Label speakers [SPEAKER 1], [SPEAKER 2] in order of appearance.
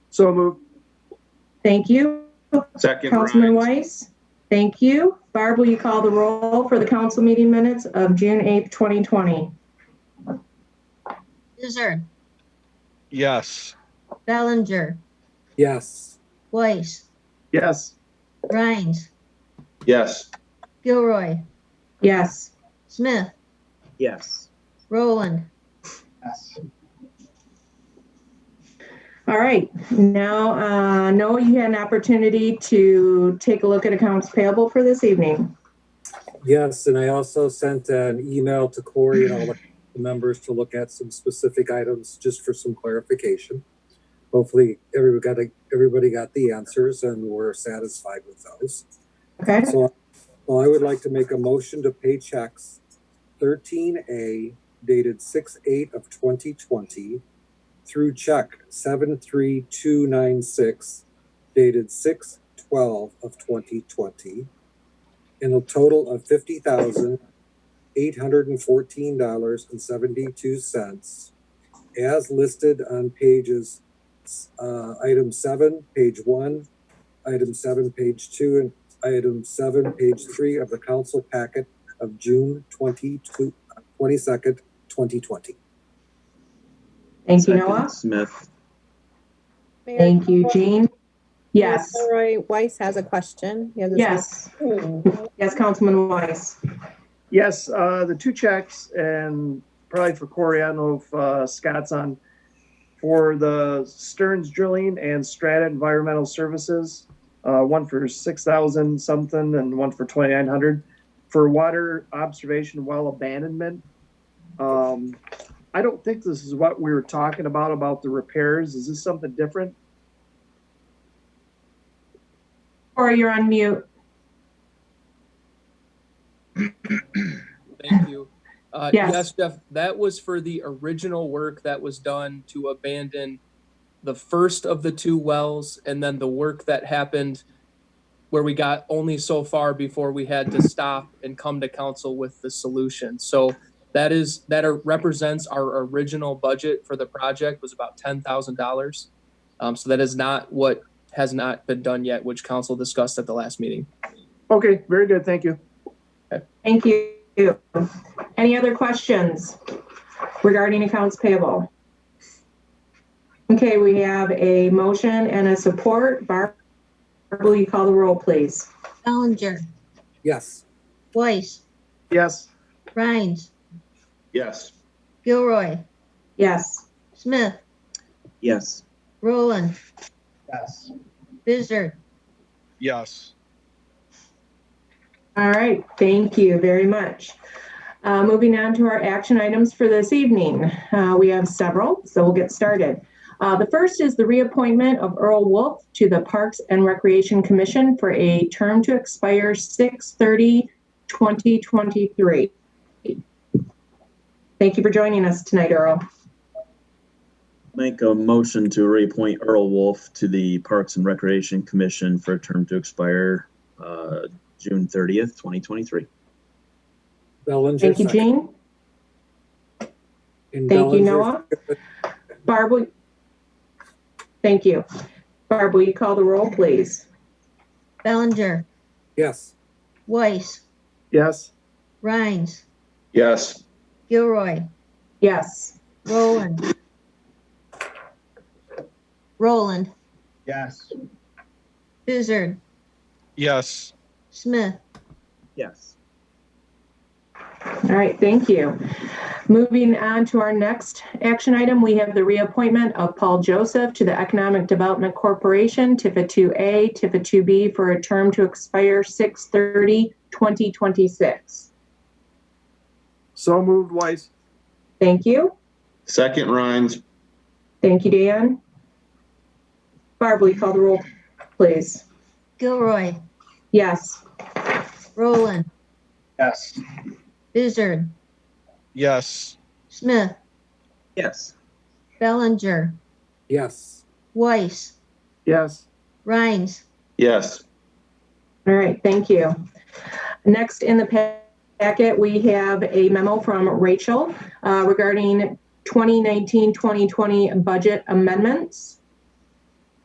[SPEAKER 1] So moved.
[SPEAKER 2] Thank you.
[SPEAKER 3] Second,
[SPEAKER 2] Councilman
[SPEAKER 3] Rhines.
[SPEAKER 2] Weiss? Thank you. Barb, will you call the roll for the council meeting minutes of June 8th, 2020?
[SPEAKER 4] Bizzard,
[SPEAKER 5] Yes.
[SPEAKER 4] Bellinger,
[SPEAKER 6] yes,
[SPEAKER 4] Weiss,
[SPEAKER 1] Yes.
[SPEAKER 4] Rhines,
[SPEAKER 3] Yes.
[SPEAKER 4] Gilroy,
[SPEAKER 2] Yes.
[SPEAKER 4] Smith,
[SPEAKER 1] Yes.
[SPEAKER 4] Roland,
[SPEAKER 1] Yes.
[SPEAKER 2] All right. Now, uh, Noah, you had an opportunity to take a look at accounts payable for this evening.
[SPEAKER 6] yes. And I also sent an email to Corey and all the members to look at some specific items just for some clarification. Hopefully, everybody got, everybody got the answers and were satisfied with those.
[SPEAKER 2] Okay?
[SPEAKER 6] So, well, I would like to make a motion to pay checks thirteen A dated six eight of twenty twenty through check seven three two nine six dated six twelve of twenty twenty in a total of fifty thousand eight hundred and fourteen dollars and seventy-two cents as listed on pages, uh, item seven, page one, item seven, page two, and item seven, page three of the council packet of June 22 22nd, 2020.
[SPEAKER 2] Thank you, Noah.
[SPEAKER 3] Smith.
[SPEAKER 7] Mayor,
[SPEAKER 2] Thank you, Jean. Yes.
[SPEAKER 7] Roy Weiss has a question. He has his hand-
[SPEAKER 2] Yes. Yes, Councilman Weiss.
[SPEAKER 1] Yes, uh, the two checks and probably for Corey, I don't know if, uh, Scott's on, for the Stearns Drilling and Strata Environmental Services, uh, one for six thousand something and one for twenty-nine hundred for water observation well abandonment. Um, I don't think this is what we were talking about, about the repairs. Is this something different?
[SPEAKER 2] Corey, you're on mute.
[SPEAKER 8] Thank you. Uh,
[SPEAKER 2] Yes.
[SPEAKER 8] yes, Jeff, that was for the original work that was done to abandon the first of the two wells and then the work that happened where we got only so far before we had to stop and come to council with the solution. So that is, that are- represents our original budget for the project was about $10,000. Um, so that is not what has not been done yet, which council discussed at the last meeting.
[SPEAKER 1] Okay, very good, thank you.
[SPEAKER 2] Thank you. Any other questions regarding accounts payable? Okay, we have a motion and a support. Barb, will you call the roll, please?
[SPEAKER 4] Bellinger,
[SPEAKER 6] Yes,
[SPEAKER 4] Weiss,
[SPEAKER 1] Yes.
[SPEAKER 4] Rhines,
[SPEAKER 3] Yes.
[SPEAKER 4] Gilroy,
[SPEAKER 2] Yes.
[SPEAKER 4] Smith,
[SPEAKER 1] Yes.
[SPEAKER 4] Roland,
[SPEAKER 1] Yes.
[SPEAKER 4] Bizzard,
[SPEAKER 5] Yes.
[SPEAKER 2] All right, thank you very much. Uh, moving on to our action items for this evening. Uh, we have several, so we'll get started. Uh, the first is the reappointment of Earl Wolf to the Parks and Recreation Commission for a term to expire 6 2023. Thank you for joining us tonight, Earl.
[SPEAKER 9] Make a motion to reappoint Earl Wolf to the Parks and Recreation Commission for a term to expire uh, June 30th, 2023.
[SPEAKER 6] Bellinger.
[SPEAKER 2] Thank you,
[SPEAKER 6] second.
[SPEAKER 2] Jean.
[SPEAKER 6] And
[SPEAKER 2] Thank you,
[SPEAKER 6] Bellinger-
[SPEAKER 2] Noah. Barb, will- thank you. Barb, will you call the roll, please?
[SPEAKER 4] Bellinger,
[SPEAKER 6] Yes,
[SPEAKER 4] Weiss,
[SPEAKER 1] Yes.
[SPEAKER 4] Rhines,
[SPEAKER 3] Yes.
[SPEAKER 4] Gilroy,
[SPEAKER 2] Yes.
[SPEAKER 4] Roland, Roland,
[SPEAKER 1] Yes.
[SPEAKER 4] Bizzard,
[SPEAKER 5] Yes.
[SPEAKER 4] Smith,
[SPEAKER 9] Yes.
[SPEAKER 2] All right, thank you. Moving on to our next action item, we have the reappointment of Paul Joseph to the Economic Development Corporation, TIFA 2A, TIFA 2B, for a term to expire 6/30/2026.
[SPEAKER 1] So moved, Weiss.
[SPEAKER 2] Thank you.
[SPEAKER 3] Second, Rhines.
[SPEAKER 2] Thank you, Dan. Barb, will you call the roll, please?
[SPEAKER 4] Gilroy,
[SPEAKER 2] Yes.
[SPEAKER 4] Roland,
[SPEAKER 1] Yes.
[SPEAKER 4] Bizzard,
[SPEAKER 5] Yes.
[SPEAKER 4] Smith,
[SPEAKER 9] Yes.
[SPEAKER 4] Bellinger,
[SPEAKER 6] yes,
[SPEAKER 4] Weiss,
[SPEAKER 1] Yes.
[SPEAKER 4] Rhines,
[SPEAKER 3] Yes.
[SPEAKER 2] All right, thank you. Next in the pa- packet, we have a memo from Rachel uh, regarding 2019-2020 budget amendments.